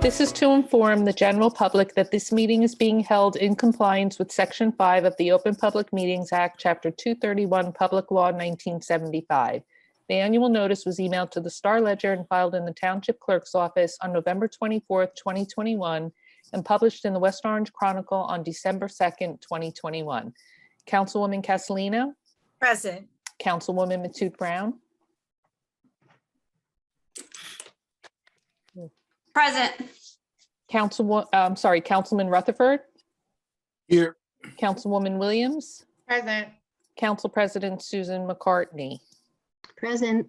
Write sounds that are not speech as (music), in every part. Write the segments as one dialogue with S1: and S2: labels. S1: This is to inform the general public that this meeting is being held in compliance with Section 5 of the Open Public Meetings Act, Chapter 231, Public Law 1975. The annual notice was emailed to the Star Ledger and filed in the Township Clerk's Office on November 24th, 2021, and published in the West Orange Chronicle on December 2nd, 2021. Councilwoman Castellino,
S2: Present.
S1: Councilwoman Matute Brown,
S3: Present.
S1: Councilwo, I'm sorry, Councilman Rutherford,
S4: Here,
S1: Councilwoman Williams,
S2: Present.
S1: Council President Susan McCartney.
S5: Present,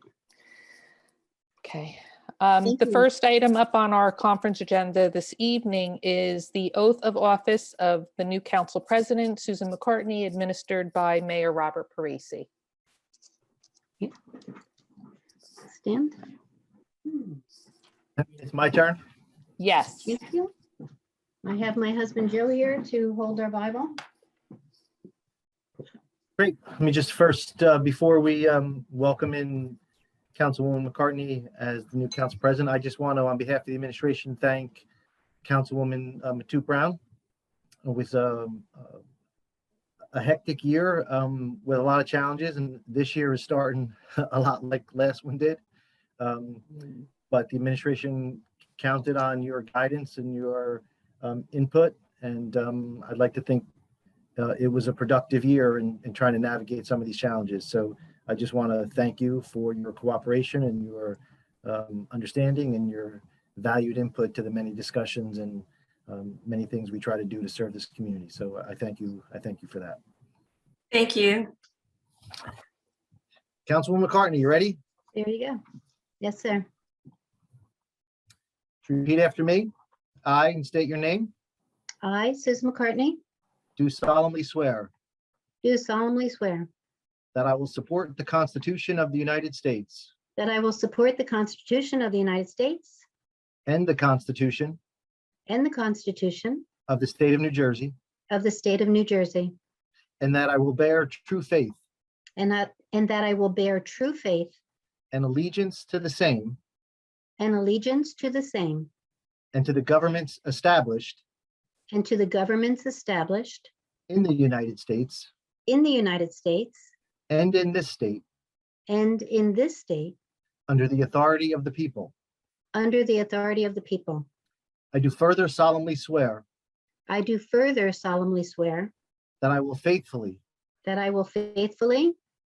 S1: Okay. Um,
S5: Thank
S1: The
S5: you.
S1: first item up on our conference agenda this evening is the oath of office of the new council president, Susan McCartney, administered by Mayor Robert Parisi.
S5: stand.
S6: It's my turn.
S1: Yes.
S5: Thank you. I have my husband Joe here to hold our Bible.
S6: Great. Let me just first, uh, before we um, welcome in Councilwoman McCartney as the new council president, I just want to, on behalf of the administration, thank Councilwoman uh, Matute Brown. It was um, uh, a hectic year um, with a lot of challenges, and this year is starting (laughs) a lot like last one did. Um, But the administration counted on your guidance and your um, input, and um, I'd like to thank uh, it was a productive year in, in trying to navigate some of these challenges. So I just want to thank you for your cooperation and your um, understanding and your valued input to the many discussions and um, many things we try to do to serve this community. So I thank you. I thank you for that.
S3: Thank you.
S6: Councilwoman McCartney, you ready?
S5: There you go. Yes, sir.
S6: Repeat after me. I, and state your name,
S5: I, Susan McCartney,
S6: do solemnly swear
S5: do solemnly swear
S6: that I will support the Constitution of the United States
S5: that I will support the Constitution of the United States
S6: and the Constitution
S5: and the Constitution
S6: of the State of New Jersey,
S5: of the State of New Jersey,
S6: and that I will bear true faith
S5: and that, and that I will bear true faith
S6: and allegiance to the same
S5: and allegiance to the same
S6: and to the governments established
S5: and to the governments established
S6: in the United States
S5: in the United States
S6: and in this state
S5: and in this state
S6: under the authority of the people.
S5: under the authority of the people.
S6: I do further solemnly swear
S5: I do further solemnly swear
S6: that I will faithfully,
S5: that I will faithfully,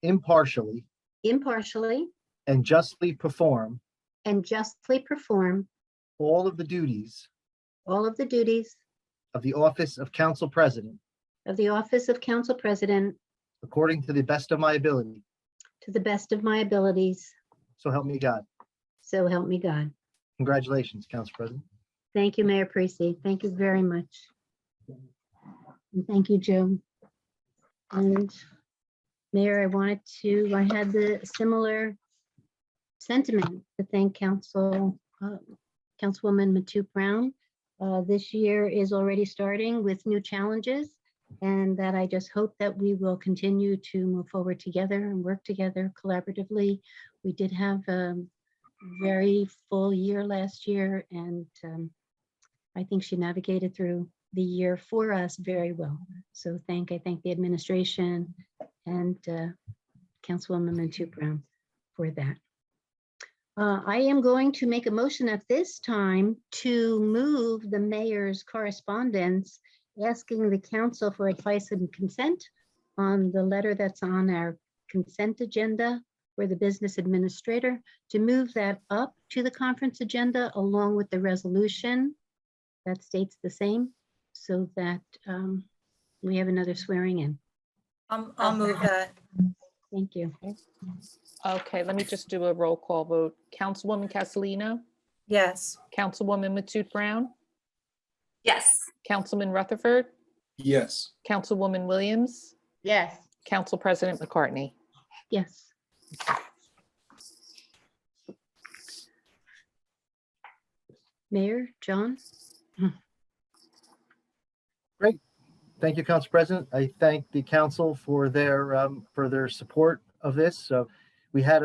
S6: impartially,
S5: impartially,
S6: and justly perform
S5: and justly perform
S6: all of the duties
S5: all of the duties
S6: of the office of council president
S5: of the office of council president
S6: according to the best of my ability.
S5: to the best of my abilities.
S6: So help me God.
S5: So help me God.
S6: Congratulations, Council President.
S5: Thank you, Mayor Parisi. Thank you very much. And thank you, Joe. And Mayor, I wanted to, I had the similar sentiment to thank Council, uh, Councilwoman Matute Brown. Uh, This year is already starting with new challenges and that I just hope that we will continue to move forward together and work together collaboratively. We did have um, very full year last year and um, I think she navigated through the year for us very well. So thank, I thank the administration and uh, Councilwoman Mantu Brown for that. Uh, I am going to make a motion at this time to move the mayor's correspondence asking the council for advice and consent on the letter that's on our consent agenda for the business administrator to move that up to the conference agenda along with the resolution that states the same, so that um, we have another swearing in.
S2: I'll, Um, I'll move that.
S5: Thank you.
S1: Okay, let me just do a roll call vote. Councilwoman Castellino,
S2: Yes.
S1: Councilwoman Matute Brown,
S3: Yes.
S1: Councilman Rutherford,
S4: yes,
S1: Councilwoman Williams,
S2: Yes.
S1: Council President McCartney.
S5: Yes. Mayor, John?
S6: Thank you, Council President. I thank the council for their, um, for their support of this. So we had a